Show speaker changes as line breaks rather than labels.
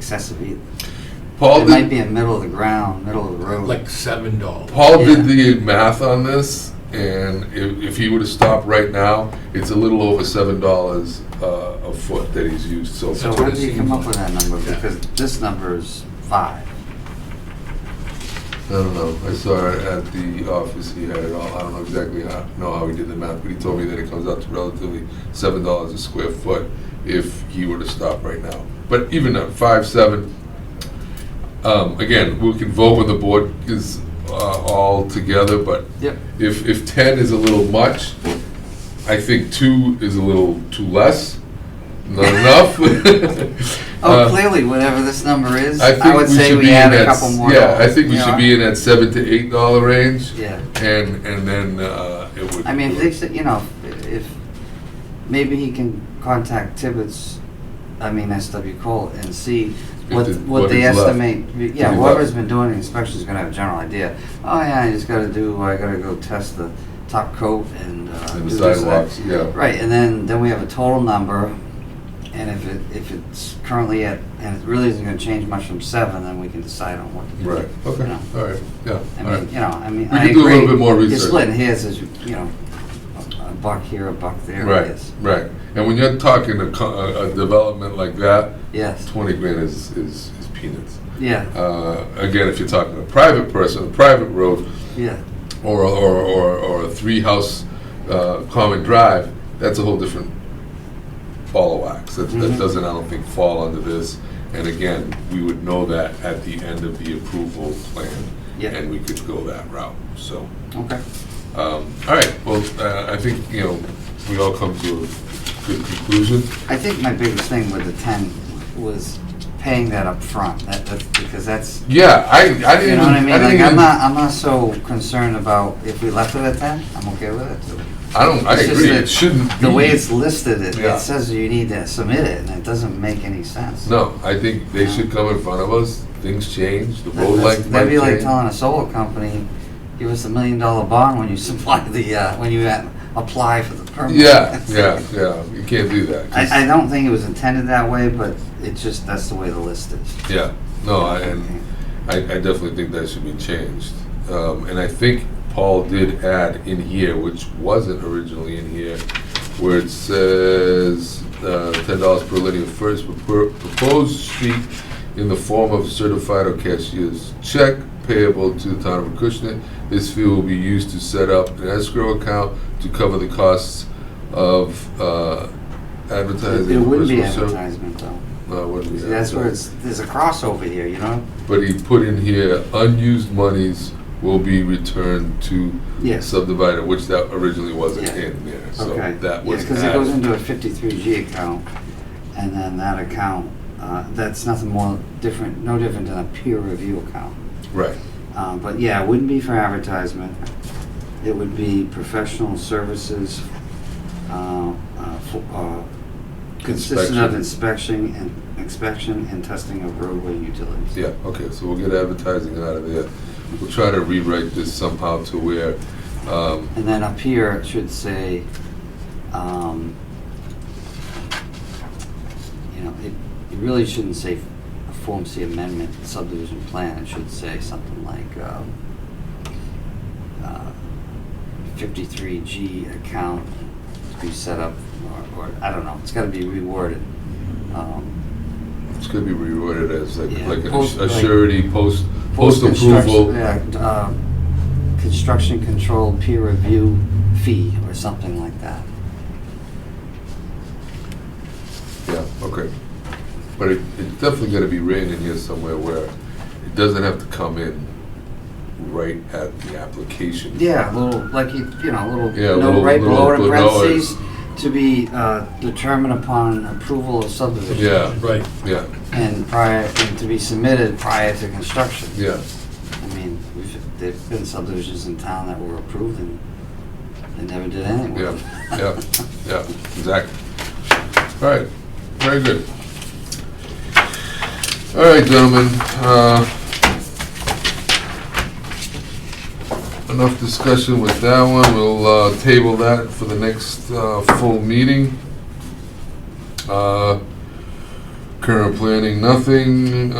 excessive either.
Paul
It might
did,
be in middle of the ground, middle of the road.
Like seven dollars.
Paul did
yeah.
the math on this, and if, if he would have stopped right now, it's a little over seven dollars uh, a foot that he's used so
So
far.
what
where
it
did you
seems
come up
like.
with that number?
Yeah.
Because this number is five.
I don't know. I saw it at the office. He had it all. I don't know exactly how know how he did the math, but he told me that it comes out to relatively seven dollars a square foot if he were to stop right now. But even at five seven, um, again, we can vote when the board is uh, all together. But
Yep.
if, if 10 is a little much, I think two is a little too less, not enough.
Oh,
Uh,
clearly, whatever this number is,
I
I
think we
would say
should
we
be in
add a
that,
couple
s-
more.
yeah, I think we
you
should
know?
be in that seven to eight dollar range,
Yeah,
and, and then uh, it would.
I mean, if they said, you know, if- if, maybe he can contact Tibbetts, I mean, SW Cole, and see what,
the-
what
what
they
is left.
estimate. Yeah,
What is
whoever's
left.
been doing the inspection's gonna have a general idea. Oh, yeah, I just gotta do, I gotta go test the top coat and uh, do
And the
this, that.
sidewalks, yeah.
Right, and then, then we have a total number, and if it, if it's currently at, and it really isn't gonna change much from seven, then we can decide on what to do.
Right,
You
okay,
know.
all right,
I
yeah, all
mean,
right.
you know, I mean,
We
I
can do a little
agree,
bit more
You're
research.
splitting hairs as you, you know, a a buck here, a buck there, I
Right,
guess.
right. And when you're talking a, co- a a development like that,
Yes,
twenty grand is, is is peanuts.
yeah,
Uh, Again, if you're talking a private person, a private road,
yeah,
or, or, or, or a three-house uh, common drive, that's a whole different ball of wax. That,
Mhm.
that doesn't, I don't think, fall under this. And again, we would know that at the end of the approval plan,
yeah,
and we could go that route, so.
okay.
um, All right, well, uh, I think, you know, we all come to a good conclusion.
I think my biggest thing with the ten was paying that up front. that, that's, because that's,
Yeah, I, I didn't.
you know what I
even-
mean? Like,
didn't
I'm
even-
not, I'm not so concerned about if we left it at ten, I'm okay with it.
I don't, I
it's just
agree,
that
it shouldn't
The way
be.
it's listed, it,
Yeah.
it says you need to submit it, and it doesn't make any sense.
No, I think they should come in front of us, things change, the road
That's-
length might
That'd be like
change.
telling a solar company, give us a million dollar bond when you supply the, uh, when you uh, apply for the permit.
Yeah, yeah, yeah, you can't do that. 'cause-
I, I don't think it was intended that way, but it's just, that's the way the list is.
Yeah, no, I- and I, I definitely think that should be changed. Um, and I think Paul did add in here, which wasn't originally in here, where it says, uh, ten dollars per linear first propo- proposed sheet in the form of certified or cashier's check payable to the town of Acushnet. This fee will be used to set up an escrow account to cover the costs of, uh, advertising.
It wouldn't be
personal ser-
advertisement though.
No, it wouldn't be
See, That's where
advertising.
it's, there's a crossover here, you know?
But he put in here, unused monies will be returned to
Yes,
subdivider, which that originally wasn't
Yeah.
in there, so
okay.
that was
Because it goes
added.
into a fifty-three G account, and then that account, uh, that's nothing more different, no different than a peer review account.
Right,
Um, But yeah, it wouldn't be for advertisement. It would be professional services, uh, uh, fo- uh, consisting of inspection and, inspection and testing of roadway utilities.
yeah, okay, so we'll get advertising out of there. We'll try to rewrite this somehow to where, um,
And then up here, it should say, um, you know, it, it really shouldn't say a Form C amendment subdivision plan. It should say something like, um, uh, 53G account to be set up, or, or, I don't know, it's gotta be reworded. Um,
it's gonna be reworded as like,
Yeah.
like a
Post-
a
like-
surety, post, post
post-construction-
approval.
yeah, d- uh, Construction control peer review fee, or something like that.
Yeah, okay. But it, it's definitely gonna be written in here somewhere where it doesn't have to come in right at the application.
Yeah, a little, like, you you know, a
Yeah,
little
a
note
little-
right below it in
little- no, it's-
parentheses, to be uh, determined upon approval of subdivision.
Yeah,
Right.
yeah,
And prior, and to be submitted prior to construction.
yeah.
I mean, we've, there've been subdivisions in town that were approved and they never did anything with them.
Yeah, yeah, yeah, exactly. All right, very good. All right, gentlemen, uh, enough discussion with that one. We'll uh, table that for the next uh, full meeting. Uh, current planning, nothing,